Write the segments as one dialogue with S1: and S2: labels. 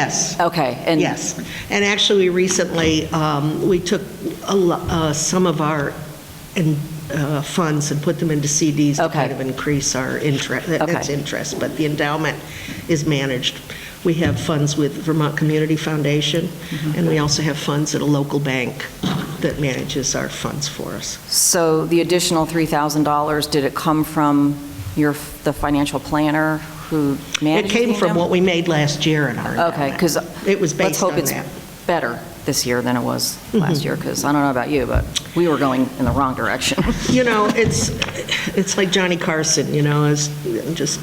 S1: Yes.
S2: Okay, and
S1: Yes. And actually, we recently, um, we took a lo- uh, some of our in- uh, funds and put them into CDs to
S2: Okay.
S1: kind of increase our interest, that's
S2: Okay.
S1: interest, but the endowment is managed. We have funds with Vermont Community Foundation,
S2: Mm-hmm.
S1: and we also have funds at a local bank that manages our funds for us.
S2: so the additional $3,000, did it come from your, the financial planner who
S1: It
S2: managed the
S1: came from
S2: endowment?
S1: what we made last year in our
S2: Okay,
S1: endowment.
S2: because
S1: It was
S2: let's
S1: based
S2: hope
S1: on
S2: it's
S1: that. Mm-hmm.
S2: better this year than it was last year, because I don't know about you, but we were going in the wrong direction.
S1: You know, it's, it's like Johnny Carson, you know, it's just,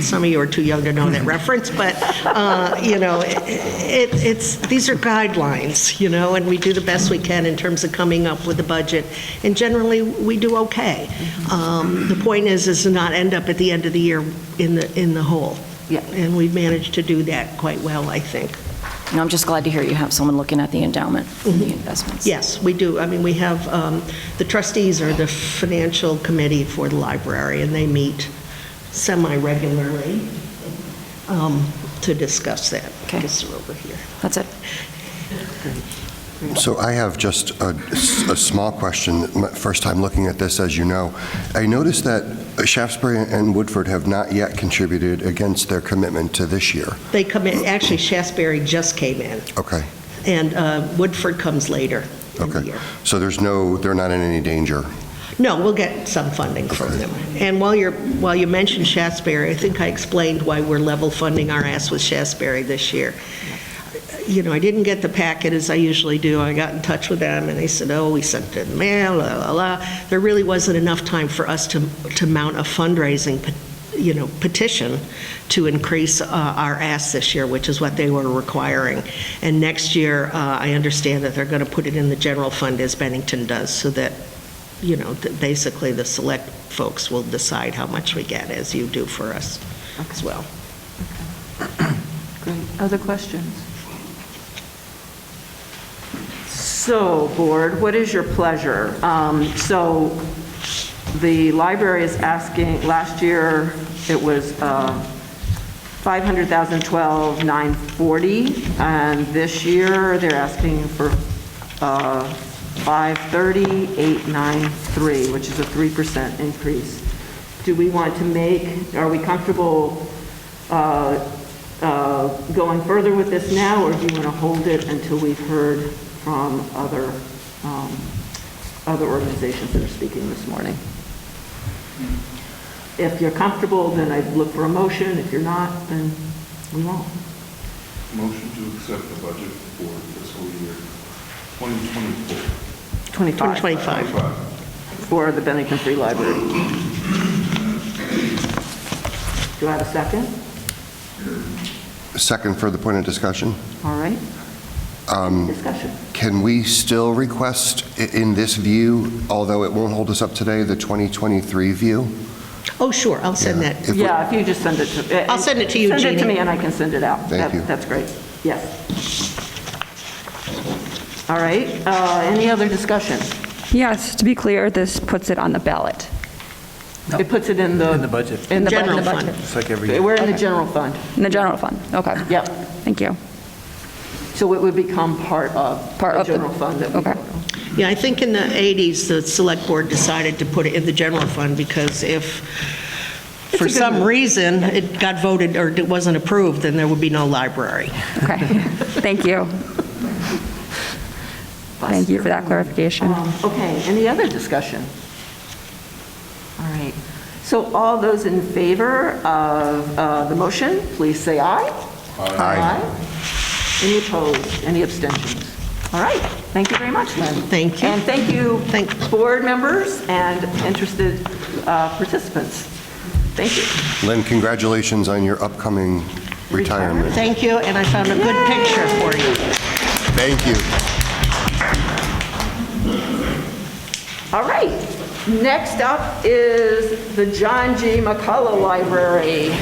S1: some of you are too young to know that reference, but, uh, you know, it, it's, these are guidelines, you know, and we do the best we can in terms of coming up with a budget, and generally, we do okay. Um, The point is, is to not end up at the end of the year in the, in the hole.
S2: Yeah.
S1: And we've managed to do that quite well, I think.
S2: And I'm just glad to hear you have someone looking at the endowment and
S1: Mm-hmm.
S2: the investments.
S1: Yes, we do. I mean, we have, um, the trustees are the financial committee for the library, and they meet semi-regularly um, to discuss that.
S2: Okay.
S1: Guess they're over here.
S2: That's it.
S3: So I have just a, a small question, My first time looking at this, as you know. I noticed that Shaftesbury and Woodford have not yet contributed against their commitment to this year.
S1: They come in, actually, Shasberry just came in,
S3: Okay,
S1: and uh, Woodford comes later in the
S3: okay.
S1: year.
S3: So there's no, they're not in any danger.
S1: No, we'll get some funding from them. And while you're, while you mentioned Shasberry, I think I explained why we're level funding our ass with Shasberry this year. You know, I didn't get the packet as I usually do. I got in touch with them, and they said, oh, we sent it in mail, la, la, la. There really wasn't enough time for us to, to mount a fundraising, pe- you know, petition to increase uh, our ask this year, which is what they were requiring. And next year, uh, I understand that they're going to put it in the general fund as Bennington does, so that you know, th- basically, the select folks will decide how much we get, as you do for us as well.
S4: Great. Other questions? So, Board, what is your pleasure? Um, So, the library is asking, last year, it was uh, 500,012,940, and this year, they're asking for uh, 530,893, which is a 3% increase. Do we want to make, are we comfortable uh, uh, going further with this now, or do you want to hold it until we've heard from other, um, other organizations that are speaking this morning? If you're comfortable, then I'd look for a motion. If you're not, then we won't.
S5: Motion to accept the budget for fiscal year 2024.
S4: 25,
S1: 25.
S4: for the Bennington Free Library. Do I have a second?
S3: Second further point of discussion,
S4: All right.
S3: Um,
S4: Discussion.
S3: can we still request i- in this view, although it won't hold us up today, the 2023 view?
S1: Oh, sure, I'll send
S3: Yeah.
S1: that.
S3: If we-
S4: Yeah, if you just send it to... eh,
S1: I'll send it to you,
S4: Send it to
S1: Jeannie.
S4: me, and I can send it out.
S3: Thank
S4: That-
S3: you.
S4: That's great. Yes. All right, uh, any other discussion?
S6: Yes, to be clear, this puts it on the ballot.
S4: It puts it in the...
S7: In the budget.
S4: In the
S1: General
S4: budget.
S1: fund.
S7: It's like every year.
S4: We're in the general fund.
S6: In the general fund, okay.
S4: Yep.
S6: Thank you.
S4: So it would become part of
S6: Part
S4: the
S6: of the-
S4: general fund that we
S6: okay.
S4: vote on.
S1: Yeah, I think in the 80s, the select board decided to put it in the general fund because if, for some reason, it got voted or it wasn't approved, then there would be no library.
S6: Okay. Thank you. Thank you for that clarification.
S4: Um, Okay, any other discussion? All right, so all those in favor of uh, the motion, please say aye. Aye. Any opposed, any abstentions? All right, thank you very much, Lynn.
S1: Thank you.
S4: And thank you,
S1: Thank-
S4: board members and interested uh, participants. Thank you.
S3: Lynn, congratulations on your upcoming retirement.
S1: Thank you, and I found a good picture for you.
S3: Thank you.
S4: All right, next up is the John G. McCullough Library.